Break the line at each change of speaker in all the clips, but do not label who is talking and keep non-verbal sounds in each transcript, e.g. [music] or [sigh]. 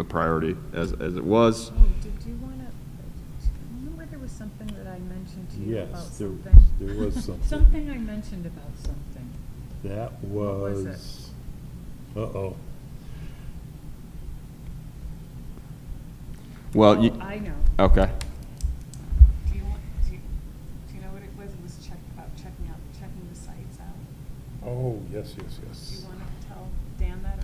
a priority as, as it was.
Oh, did you want to, remember there was something that I mentioned to you about
Yes, there-
something?
there
[laughs]
was something.
Something I mentioned about something.
That
What was it?
was, uh-oh.
Well, you,
Oh, I know.
okay.
Do you want, do you, do you know what it was? It was check, about checking out, checking the sites out.
Oh, yes, yes,
Do you
yes.
want to tell Dan that or?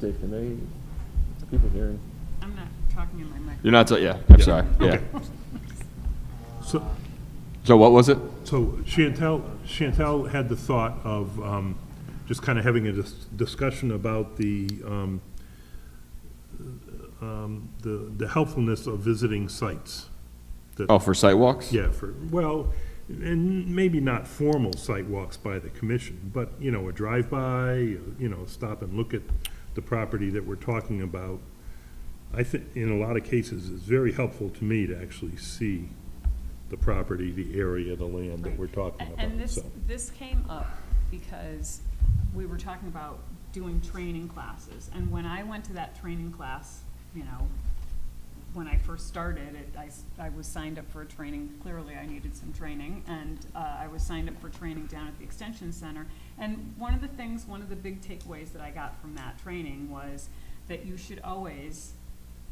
Dave, can they, people hearing?
I'm not talking in my microphone.
You're not, so- yeah, I'm
Yeah.
sorry, yeah.
Okay. So,
So what was it?
so Chantel, Chantel had the thought of um, just kind of having a dis- discussion about the, um, um, the the helpfulness of visiting sites. that-
Oh, for sidewalks?
Yeah, for, well, and maybe not formal site walks by the commission, but, you know, a drive-by, you know, stop and look at the property that we're talking about. I think, in a lot of cases, it's very helpful to me to actually see the property, the area, the land that we're talking
A- And
about,
this,
so.
this came up because we were talking about doing training classes. And when I went to that training class, you know, when I first started, it, I, s- I was signed up for a training, clearly I needed some training. And, uh, I was signed up for training down at the Extension Center. And one of the things, one of the big takeaways that I got from that training was that you should always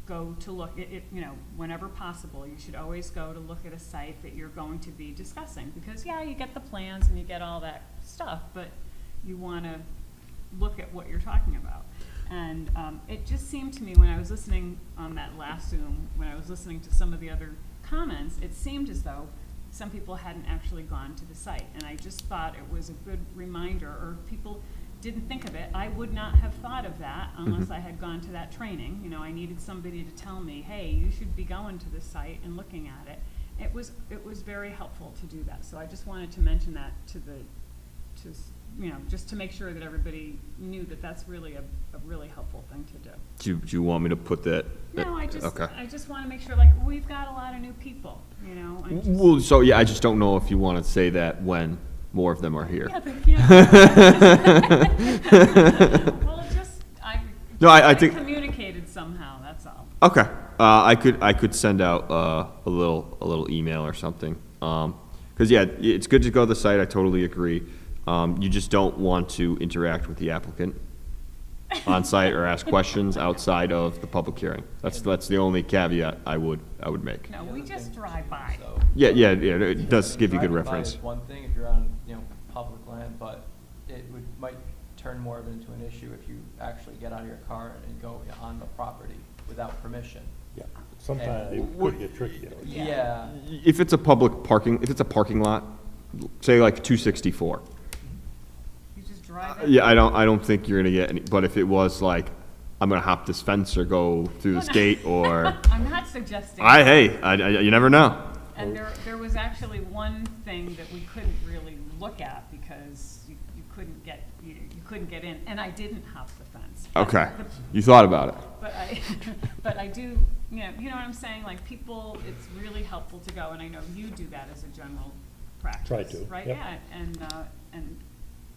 go to look, it, it, you know, whenever possible, you should always go to look at a site that you're going to be discussing. Because, yeah, you get the plans and you get all that stuff, but you wanna look at what you're talking about. And, um, it just seemed to me, when I was listening on that last Zoom, when I was listening to some of the other comments, it seemed as though some people hadn't actually gone to the site. And I just thought it was a good reminder, or people didn't think of it. I would not have thought of that
Mm-hmm.
unless I had gone to that training. You know, I needed somebody to tell me, hey, you should be going to this site and looking at it. It was, it was very helpful to do that. So I just wanted to mention that to the, to, s- you know, just to make sure that everybody knew that that's really a, a really helpful thing to do.
Do you, do you want me to put that?
No, I just,
Okay.
I just want to make sure, like, we've got a lot of new people, you know? I'm just-
Well, so, yeah, I just don't know if you want to say that when more of them are here.
Yeah, they
[laughs]
can't. Well, just, I.
No, I- I think-
Communicated somehow, that's all.
Okay, uh, I could, I could send out, uh, a little, a little email or something. Um 'cause cause yeah, i- it's good to go to the site, I totally agree. Um, you just don't want to interact with the applicant on site or ask questions outside of the public hearing. That's, that's the only caveat I would, I would make.
No, we just drive by.
So-
Yeah, yeah, yeah, it does give you good
Driving by
reference.
is one thing if you're on, you know, public land, but it would, might turn more of it into an issue if you actually get out of your car and go on the property without permission.
Yeah,
Uh,
sometimes it could get tricky.
Yeah,
If it's a public parking, if it's a parking lot, say like two sixty-four.
You just drive. in.
Yeah, I don't, I don't think you're gonna get any, but if it was like, I'm gonna hop this fence or go through
[laughs]
this gate or,
I'm not suggesting.
I, hey, I, I- you never know.
And there, there was actually one thing that we couldn't really look at because you, you couldn't get, you, you couldn't get in, and I didn't hop the fence. But
Okay,
the-
you thought about it.
But I, [laughs] but I do, you know, you know what I'm saying, like, people, it's really helpful to go, and I know you do that as a general practice.
Try to,
Right,
yep.
yeah, and, uh, and,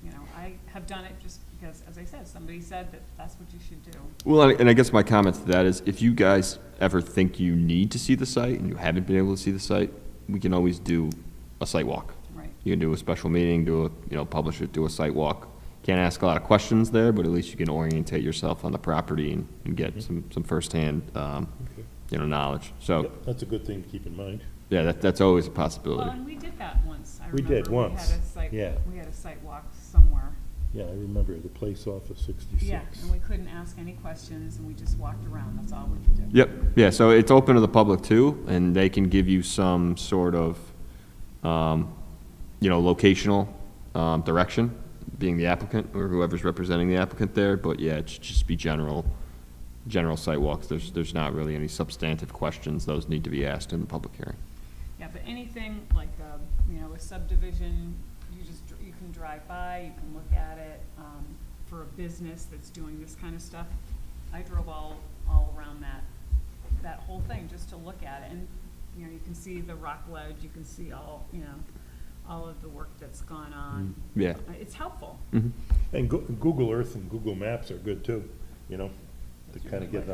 you know, I have done it just because, as I said, somebody said that that's what you should do.
Well, and and I guess my comment to that is, if you guys ever think you need to see the site and you haven't been able to see the site, we can always do a site walk.
Right.
You can do a special meeting, do a, you know, publish it, do a site walk. Can't ask a lot of questions there, but at least you can orientate yourself on the property and, and get some, some firsthand, um,
Okay.
you know, knowledge. So,
That's a good thing to keep in mind.
yeah, that, that's always a
Well,
possibility.
and we did that once, I
We
remember.
did once,
had a site-
yeah.
We had a site walk somewhere.
Yeah, I remember the place off of 66.
Yeah, and we couldn't ask any questions, and we just walked around, that's all we could do.
Yep, yeah, so it's open to the public too, and they can give you some sort of, um, you know, locational, um, direction, being the applicant or whoever's representing the applicant there, but yeah, it should just be general, general site walks. There's, there's not really any substantive questions. Those need to be asked in the public hearing.
Yeah, but anything like, uh, you know, a subdivision, you just, dr- you can drive by, you can look at it, um, for a business that's doing this kind of stuff. I drove all, all around that, that whole thing, just to look at it, and, you know, you can see the rock ledge, you can see all, you know, all of the work that's gone on.
Yeah.
Uh, It's helpful.
And Goo- Google Earth and Google Maps are good too, you know? to kind of get an